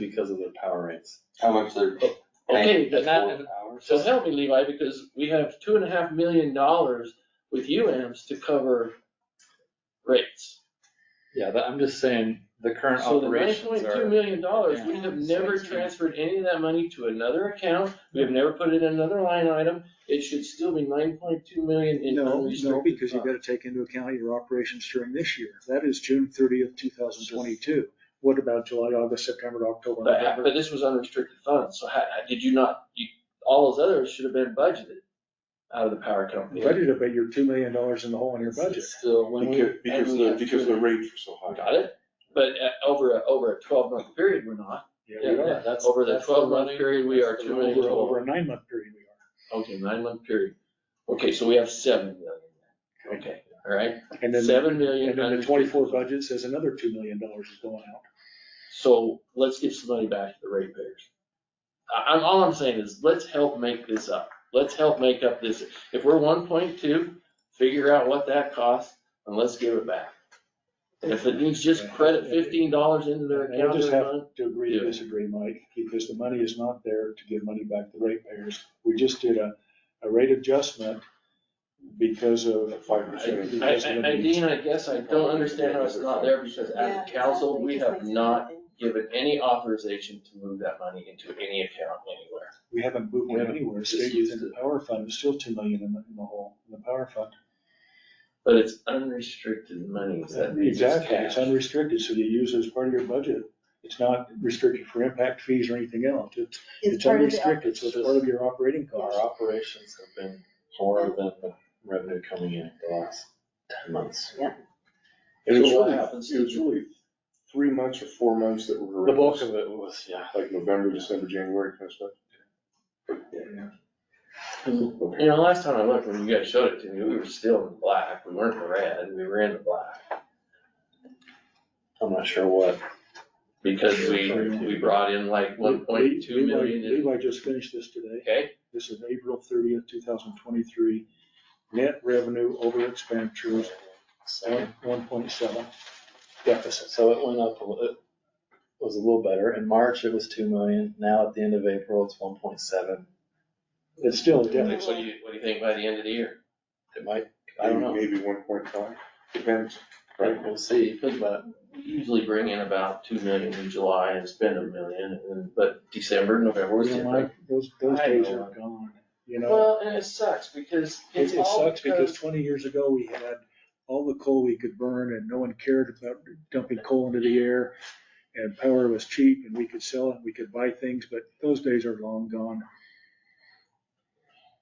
because of their power rates. How much they're. Okay, paying then that, for uh, hours? so help me Levi, because we have two and a half million dollars with UAMs to cover rates. Yeah, but I'm just saying, the current So the nine operations point two are, million dollars, we Yeah. have never transferred any of that money to another account, we have never put it in another line item. It should still be nine point two million in No, no, unrestricted because you've funds. got to take into account your operations during this year. That is June thirtieth, two thousand twenty-two. What about July, August, September, October, But, uh, November? but this was unrestricted funds, so how, how- did you not, you, all those others should have been budgeted out of the power company. Budgeted about your two million dollars in the hole in your budget. So when we. Because, because the, because the rates are so high. Got it, but uh, over, a- over a twelve month period, we're not. we are. Yeah, that's- Over the that's the twelve month running- period, we are Over- two million Over total. a nine-month period we are. Okay, nine month period. Okay, so we have seven million. Okay, all right, And then, seven million. and then the unrestricted twenty-four funds. budget says another two million dollars is going out. So let's give some money back to the ratepayers. I, I'm, all I'm saying is, let's help make this up. Let's help make up this. If we're one point two, figure out what that costs and let's give it back. And if it means just credit fifteen dollars into their And account we just every have month, to agree Yeah. to disagree, Mike, because the money is not there to give money back to ratepayers. We just did a, a rate adjustment because of. Five percent. I, I, I, Dean, I guess I don't understand how it's not there because Yeah, as a council, exactly. we Just have makes it not nothing. given any authorization to move that money into any account anywhere. We haven't moved We it haven't anywhere. just Stayed used within the power fund. It's still two million in the, in the hole, in the power fund. But it's unrestricted money, so that means it's Exactly. It's cash. unrestricted, so you use it as part of your budget. It's not restricted for impact fees or anything else. It's, it's It's part of the- unrestricted, so it's part of your operating our cost. operations have been more than the revenue coming in the last ten months. And it's So what really, happens it was to- really three months or four months that were. The bulk of it was, yeah. Like November, December, January, kind of stuff. You know, last time I looked, when you guys showed it to me, we were still in black, we weren't in the red, we were in the black. I'm not sure what. Because we, we brought in like one point two Levi- million in, Levi just finished this today. okay? This is April thirtieth, two thousand twenty-three. Net revenue over expenditures, So one point seven deficit. so it went up, a li- it was a little better. In March, it was two million. Now at the end of April, it's one point seven. It's still a What do deficit. you, what do you think by the end of the year? It might, I don't know. Maybe one point five, depends. Right, we'll see. But We usually bring in about two million in July and spend a million, and- but December, November was You know, different. Mike, those, those I days know. are gone, you know? Well, and it sucks because It it's it all sucks because because, twenty years ago, we had all the coal we could burn and no one cared about dumping coal into the air. And power was cheap and we could sell it, we could buy things, but those days are long gone.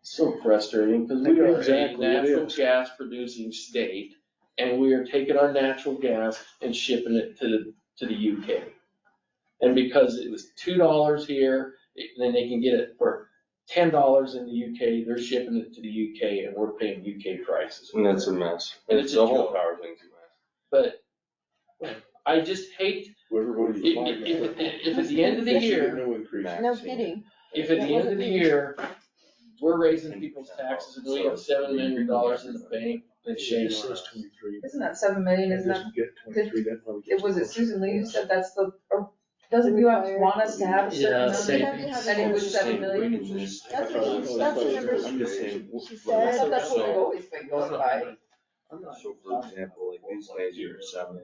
so frustrating because we are a Exactly, it natural is. gas producing state. And we are taking our natural gas and shipping it to the, to the UK. And because it was two dollars here, it- then they can get it for ten dollars in the UK, they're shipping it to the UK and we're paying UK prices. And that's a mess. And it's a The whole joke. power thing's a mess. But I just hate Whoever voted If, five, if, if- if at the end of the they should get year, No increase. No kidding. if at the end of the year, we're raising people's taxes and we have seven million dollars in the bank, then shame on us. Twenty-three. Isn't that seven million, It isn't that, doesn't get twenty-three, that probably it gets was it closer. Susan Lee who said that's the, or doesn't you want us to have a Yeah, certain same. number? And it was seven million? That's what she, that's what number I'm just she, saying, she I said. thought that's what we've always been going by. So for example, like these days you're seven.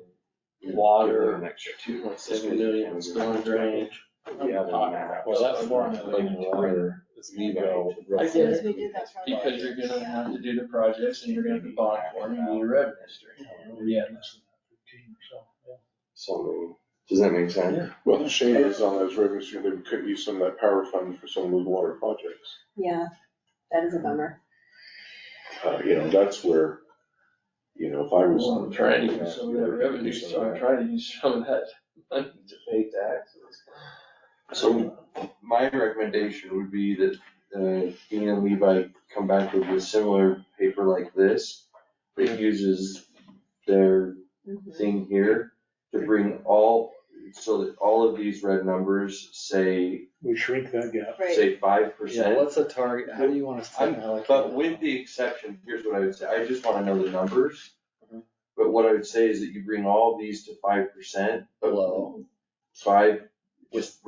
Water, Next year. two point seven million, storm drainage. Yeah, Well, that's more than the water. It's me go. I As soon as we get it, did that. for our because you're budget. gonna have to do the projects and you're gonna have to bond for them, and your revenue stream. Yeah, less than fifteen or so, yeah. So, does that make sense? Well, the shame is on those revenues, you know, they could use some of that power fund for some of those water projects. Yeah, that is a bummer. Uh, you know, that's where, you know, if I was. I'm trying to use some of that revenue, so I'm trying to use some of that money to pay taxes. So my recommendation would be that uh, Dean and Levi come back with a similar paper like this. that uses their Mhm. thing here to bring all, so that all of these red numbers say, We shrink that gap. Right, say five Yeah, percent. what's the target? How do you want us to I'm- allocate? But with that? the exception, here's what I would say, I just wanna know the numbers. Mhm. But what I would say is that you bring all these to five percent, but Below. five, just